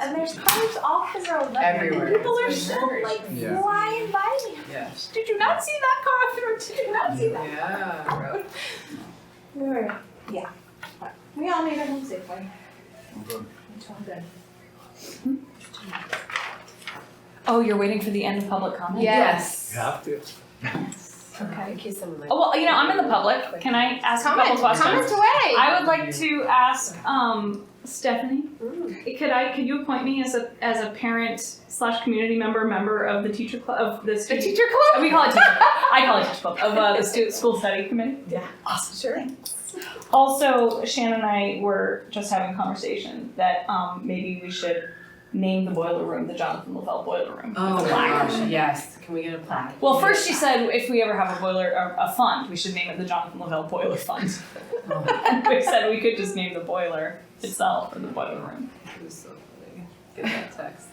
and there's cars off the road. Like, Everywhere. People are still like Yeah. flying by me. Yes. Did you not see that car through? Did you not see that Yeah. road? We were, yeah. But We all made it home safely. Okay. It's all good. Oh, you're waiting for the end of public comment? Yes. Have to. Okay. In case someone like. Oh, well, you know, I'm in the public. Can I ask a couple Comment, questions? comment away. I would like to ask um, Stephanie. Ooh. Could I? Could you appoint me as a as a parent slash community member member of the teacher club of the The student? teacher club? we call it teacher. club. I call it teacher club of uh, the stu- school study committee. Yeah. Awesome. Sure. Also, Shannon and I were just having a conversation that um, maybe we should name the boiler room the Jonathan Lavelle boiler room. Oh The my plaque. gosh, yes. Can we get a plaque? Well, first she said if we ever have a boiler a, a fund, we should name it the Jonathan Lavelle Boiler Fund. and we said we could just name the boiler itself or the boiler room. It was so funny. Get that text.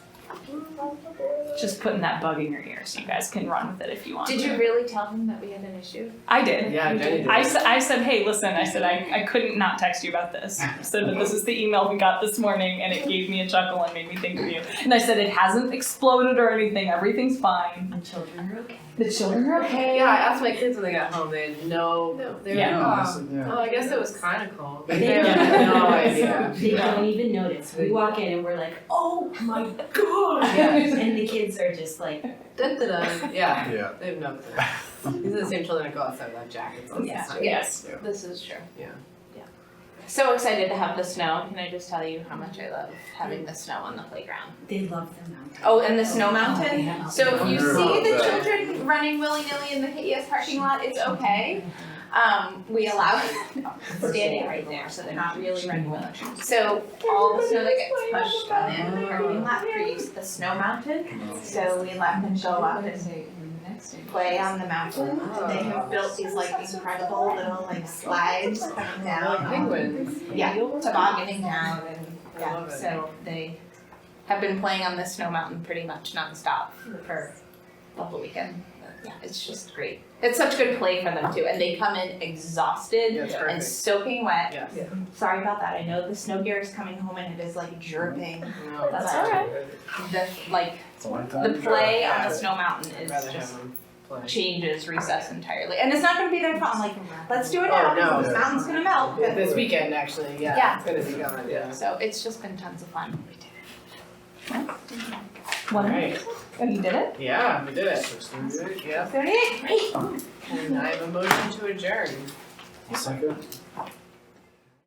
Just putting that bug in your ear so you guys can run with it if you want. Did you really tell him that we had an issue? I did. Yeah, Jenny did. I, s- I said, hey, listen, I said, I, I couldn't not text you about this. I said, but this is the email we got this morning, and it gave me a chuckle and made me think of you. And I said, it hasn't exploded or anything, everything's fine. And children are okay. The children are okay. Yeah, I asked my kids when they got home. They had no. No. They were Yeah. like, No, "Oh, listen, yeah. Oh, I guess it was kind of cold. But They they have don't- no idea. They don't even notice. We walk in and we're like, oh my god! Yes. And the kids are just like, Dun, dun, dun. Yeah, Yeah. they have no clue. These are the same children that go outside without jackets on. Yeah. It's Yes. This is true. Yeah. Yeah. So excited to have the snow. Can I just tell you how much I love having the snow on the playground? they love the mountain. Oh, and the snow Oh, mountain? yeah. So if you Wonder see about the that. children running willy-nilly in the KES parking lot, it's okay. Um, we allow standing right there, so they're not really running willy. So all the snow that gets pushed on the end of the parking lot creates the snow mountain. So we let them go up and play on the mountain. They have built these like incredible little like slides coming Like down, penguins. yeah, tobogganing down and I yeah, love it. so they have been playing on the snow mountain pretty much nonstop for the whole weekend. But, Yeah, it's just great. It's such good play for them too, and they come in exhausted Yeah, it's and perfect. soaking wet. Yes. Sorry about that, I know the snow gear is coming home and it is like dripping. No. That's all The, like, It's a long the time. play Mm-hmm. Yeah. on the snow mountain I'd is rather just have them play. changes recess entirely, and it's not gonna be their fault, like, let's do it Oh, now, no. because the mountain's gonna melt. but- This weekend, actually, yeah. Yeah. It's gonna be gone, yeah. So it's just been tons of fun. One. Right. Oh, you did it? Yeah, we did it. Yep. Thirty-eight, great. And I have a motion to adjourn. Second.